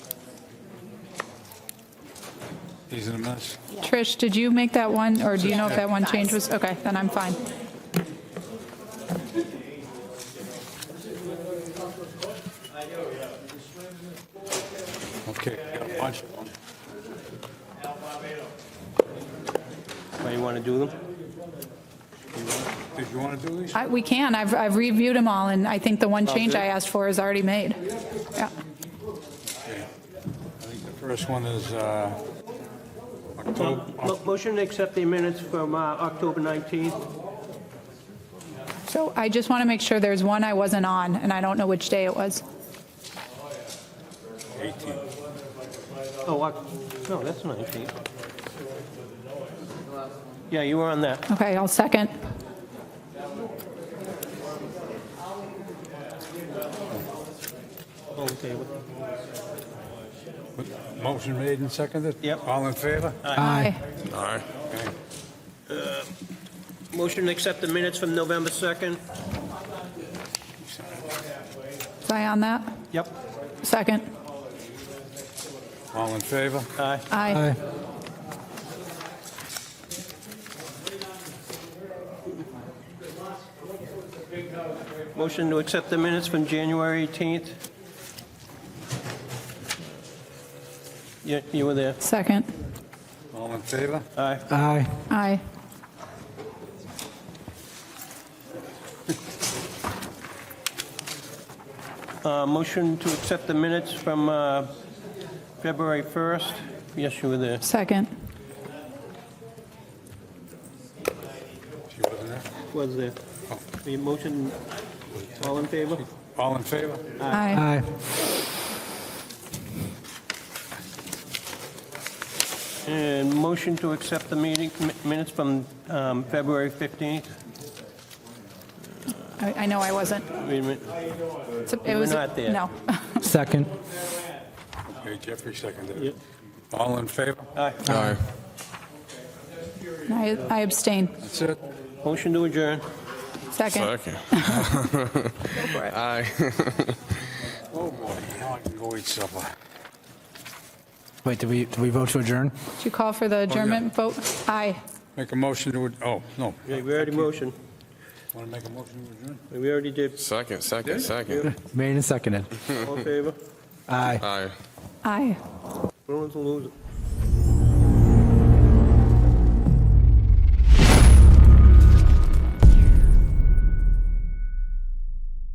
He's in a mess. Trish, did you make that one, or do you know if that one change was, okay, then I'm fine. Okay, got a bunch of them. Why you want to do them? Did you want to do these? I- We can, I've I've reviewed them all, and I think the one change I asked for is already made. Yeah, I think the first one is uh, October, Mo- Motion to accept the minutes from uh, October 19th. so I just want to make sure there's one I wasn't on, and I don't know which day it was. 18. Oh, Oc- no, that's 19th. Yeah, you were on that. Okay, I'll second. Okay. Motion made and seconded? Yep. All in favor? Aye. Aye. Okay. Motion to accept the minutes from November 2nd. Is I on that? Yep. Second. All in favor? Aye. Aye. Motion to accept the minutes from January 18th. Yeah, you were there. Second. All in favor? Aye. Aye. Aye. Uh, Motion to accept the minutes from uh, February 1st. Yes, you were there. Second. She wasn't there? Was there. The motion, all in favor? All in favor? Aye. Aye. And motion to accept the meeting mi- minutes from um, February 15th. I I know I wasn't. Wait a minute. It's a- You It were was a- not there. No. Second. Okay, Jeffrey seconded it. All in favor? Aye. Aye. I I abstain. That's it? Motion to adjourn. Second. Second. for it. Aye. Oh, boy, now I can go eat supper. Wait, did we, did we vote to adjourn? Did you call for the adjournment vote? Aye. Make a motion to, ad- oh, no. Yeah, We already motion. Want to make a motion to adjourn? We already did. Second, second, second. Made and seconded. All in favor? Aye. Aye. Aye. Bruins will lose.